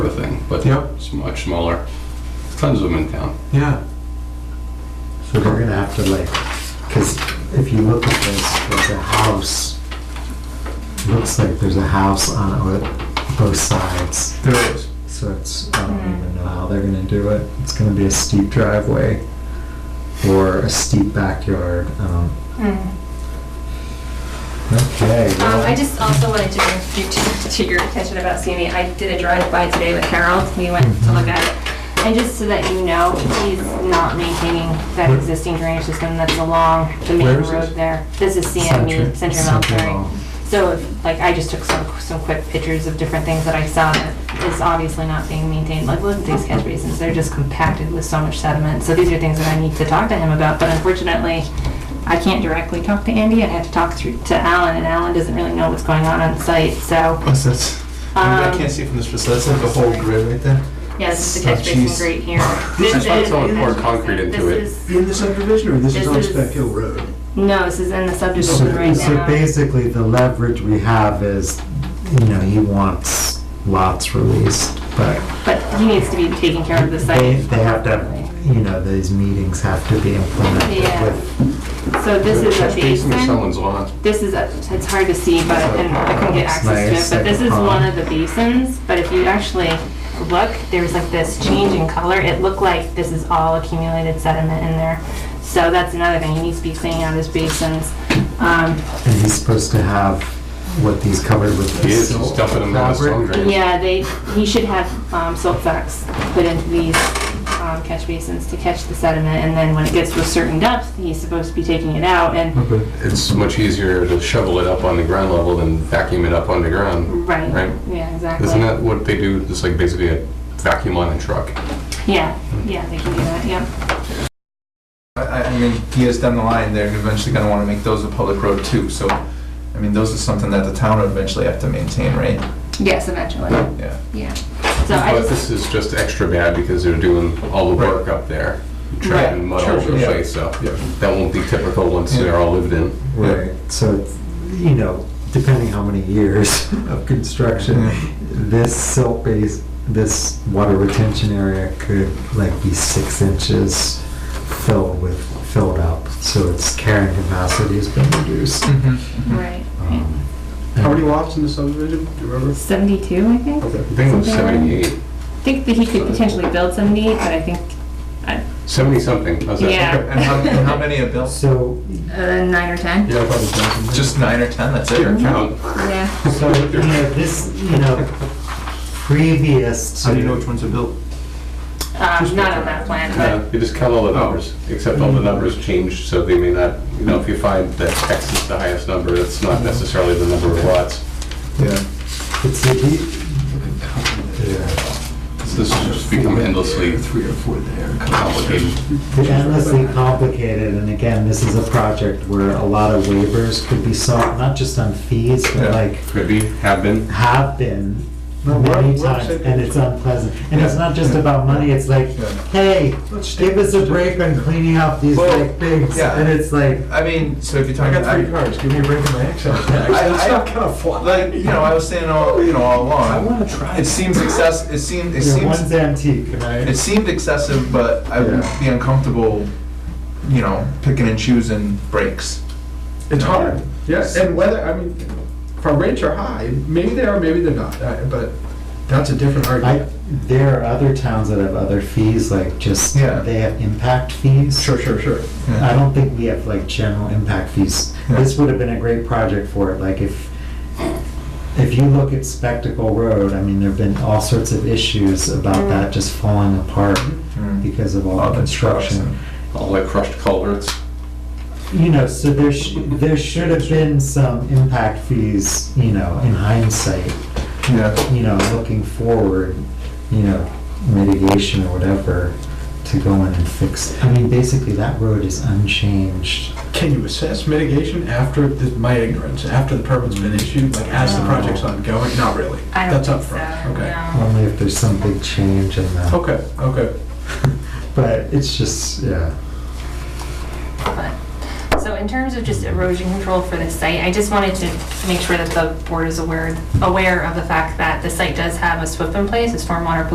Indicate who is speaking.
Speaker 1: of thing, but
Speaker 2: Yep.
Speaker 1: it's much smaller. Tons of them in town.
Speaker 2: Yeah.
Speaker 3: So we're gonna have to like, because if you look at this, there's a house. Looks like there's a house on it, both sides.
Speaker 2: There is.
Speaker 3: So it's I don't
Speaker 4: Mm-hmm.
Speaker 3: even know how they're gonna do it. It's gonna be a steep driveway or a steep backyard. Um,
Speaker 4: Mm.
Speaker 3: okay.
Speaker 4: Um,
Speaker 3: well,
Speaker 4: I just also wanted to bring you to, to your attention about Sammy. I did a drive-by today with Harold. We went to look at it. And just so that you know, he's not maintaining that
Speaker 2: Where-
Speaker 4: existing drainage system that's along the main
Speaker 2: Where is
Speaker 4: road
Speaker 2: this?
Speaker 4: there. This is CME,
Speaker 3: Century-
Speaker 4: Central Military.
Speaker 3: Central.
Speaker 4: So, if- like, I just took some, some quick pictures of different things that I saw that is obviously not being maintained. Like, look at these catch basins. They're just compacted with so much sediment. So these are things that I need to talk to him about, but unfortunately, I can't directly talk to Andy. I have to talk through to Alan, and Alan doesn't really know what's going on on site. So,
Speaker 2: What's that? I, mean, I can't see from this facility. That's like a whole grid right there.
Speaker 4: yeah, this is the
Speaker 2: Oh,
Speaker 4: catch basin
Speaker 2: jeez.
Speaker 4: grate here.
Speaker 1: That's why someone poured concrete into it.
Speaker 4: This is-
Speaker 5: In the subdivision, or this
Speaker 4: This
Speaker 5: is on
Speaker 4: is-
Speaker 5: Spec Hill Road?
Speaker 4: No, this is in the
Speaker 3: So,
Speaker 4: subdivision right
Speaker 3: so
Speaker 4: now.
Speaker 3: basically, the leverage we have is, you know, he wants lots released, but
Speaker 4: But he needs to be taking care of the site.
Speaker 3: They, they have to, you know, these meetings have to be implemented
Speaker 4: Yeah.
Speaker 3: with,
Speaker 4: So this is a
Speaker 1: Catch basin is
Speaker 4: basin.
Speaker 1: someone's lawn.
Speaker 4: This is, a- it's hard to see, but, and I couldn't get access to it, but this is one of the basins, but if you actually look, there's like this change in color, it looked like this is all accumulated sediment in there. So that's another thing, he needs to be cleaning out his basins. Um,
Speaker 3: and he's supposed to have what these covered with.
Speaker 1: He is,
Speaker 3: silt
Speaker 1: he's dumping them on his
Speaker 3: fabric.
Speaker 1: lawn drain.
Speaker 4: Yeah, they, he should have um, silt sacks put into these um, catch basins to catch the sediment, and then when it gets to a certain depth, he's supposed to be taking it out, and,
Speaker 1: It's much easier to shovel it up on the ground level than vacuum it up on the ground. Right.
Speaker 4: right, yeah, exactly.
Speaker 1: Isn't that what they do? It's like basically a vacuum on a truck.
Speaker 4: Yeah, yeah, they can do that, yeah.
Speaker 2: I, I- I mean, years down the line, they're eventually gonna wanna make those a public road too, so, I mean, those are something that the town would eventually have to maintain, right?
Speaker 4: Yes, eventually.
Speaker 2: Yeah.
Speaker 4: Yeah. So I
Speaker 1: But
Speaker 4: just,
Speaker 1: this is just extra bad because they're doing all the work up there. Trapping mud all
Speaker 2: Sure,
Speaker 1: over the
Speaker 2: yeah.
Speaker 1: place, so that won't be typical once they're all lived in.
Speaker 3: Right, so, it's, you know, depending how many years of construction,
Speaker 2: Yeah.
Speaker 3: this silt base, this water retention area could like be six inches filled with, filled up, so its carrying capacity has been reduced.
Speaker 4: Mm-hmm. right.
Speaker 3: Um,
Speaker 5: Mm-hmm. How many lots in the subdivision, do you remember?
Speaker 4: 72, I think.
Speaker 5: Okay.
Speaker 1: I think it was
Speaker 4: Something
Speaker 1: 78,
Speaker 4: like- I think that he could potentially build 78, but I think, uh,
Speaker 1: 70 something. How's that?
Speaker 4: Yeah.
Speaker 2: And how, and how many are built?
Speaker 3: So,
Speaker 4: uh, 9 or 10.
Speaker 1: Yeah, probably.
Speaker 2: Just nine or 10, that's it?
Speaker 1: Your
Speaker 4: Mm-hmm.
Speaker 1: account.
Speaker 4: Yeah.
Speaker 3: So, you know, this, you know, previous to.
Speaker 5: ones are built?
Speaker 4: Um, not on that plan,
Speaker 1: No,
Speaker 4: but
Speaker 1: you just count all the numbers, except all the numbers change, so they may not, you know, if you find that X is the highest number, that's not necessarily the number of lots.
Speaker 2: Yeah.
Speaker 3: It's a deep- yeah.
Speaker 1: This has just become endlessly
Speaker 5: Three or four there.
Speaker 1: complicated.
Speaker 3: It's endlessly complicated, and again, this is a project where a lot of waivers could be sought, not just on fees,
Speaker 2: Yeah.
Speaker 3: but like
Speaker 1: Could be, have been.
Speaker 3: have been
Speaker 5: No, we're-
Speaker 3: many
Speaker 5: we're
Speaker 3: times,
Speaker 5: upset.
Speaker 3: and it's unpleasant. And it's
Speaker 2: Yeah.
Speaker 3: not just about money, it's like,
Speaker 2: Yeah.
Speaker 3: hey,
Speaker 5: Let's
Speaker 3: give us a
Speaker 5: just-
Speaker 3: break on cleaning up these
Speaker 2: Well,
Speaker 3: like things,
Speaker 2: yeah.
Speaker 3: and it's like,
Speaker 2: I mean, so if you're talking.
Speaker 5: cars, give me a break on my access
Speaker 2: I-
Speaker 5: That's
Speaker 2: I-
Speaker 5: not gonna fly.
Speaker 2: Like, you know, I was saying all, you know, all along.
Speaker 5: I wanna try
Speaker 2: It seems excess, it seemed, it
Speaker 3: your
Speaker 2: seems.
Speaker 3: one's antique, right?
Speaker 2: It seemed excessive, but I would
Speaker 3: Yeah.
Speaker 2: be uncomfortable, you know, picking and choosing breaks.
Speaker 5: It's hard, yeah, and whether, I mean, if our rates are high, maybe they are, maybe they're not, I- but that's a different
Speaker 3: I,
Speaker 5: argument.
Speaker 3: there are other towns that have other fees, like just,
Speaker 2: Yeah.
Speaker 3: they have impact fees.
Speaker 5: Sure, sure, sure.
Speaker 3: I don't think we have like general impact fees.
Speaker 2: Yeah.
Speaker 3: This would have been a great project for it, like if, if you look at Spectacle Road, I mean, there've been all sorts of issues about that just falling apart
Speaker 2: Mm.
Speaker 3: because of all
Speaker 2: All
Speaker 3: the
Speaker 2: the
Speaker 3: construction.
Speaker 1: All like crushed culverts.
Speaker 3: You know, so there sh there should have been some impact fees, you know, in hindsight,
Speaker 2: Yeah.
Speaker 3: you know, looking forward, you know, mitigation or whatever to go in and fix. I mean, basically that road is unchanged.
Speaker 5: Can you assess mitigation after, this- my ignorance, after the permit's been issued, like as the project's ongoing? Not really.
Speaker 4: I don't
Speaker 5: That's
Speaker 4: think
Speaker 5: up
Speaker 4: so.
Speaker 5: front. Okay.
Speaker 4: no.
Speaker 3: Only if there's some big change in the.
Speaker 5: Okay, okay.
Speaker 3: But it's just, yeah.
Speaker 4: But- So in terms of just erosion control for this site, I just wanted to make sure that the board is aware, aware of the fact that the site does have a SWIP in place, a stormwater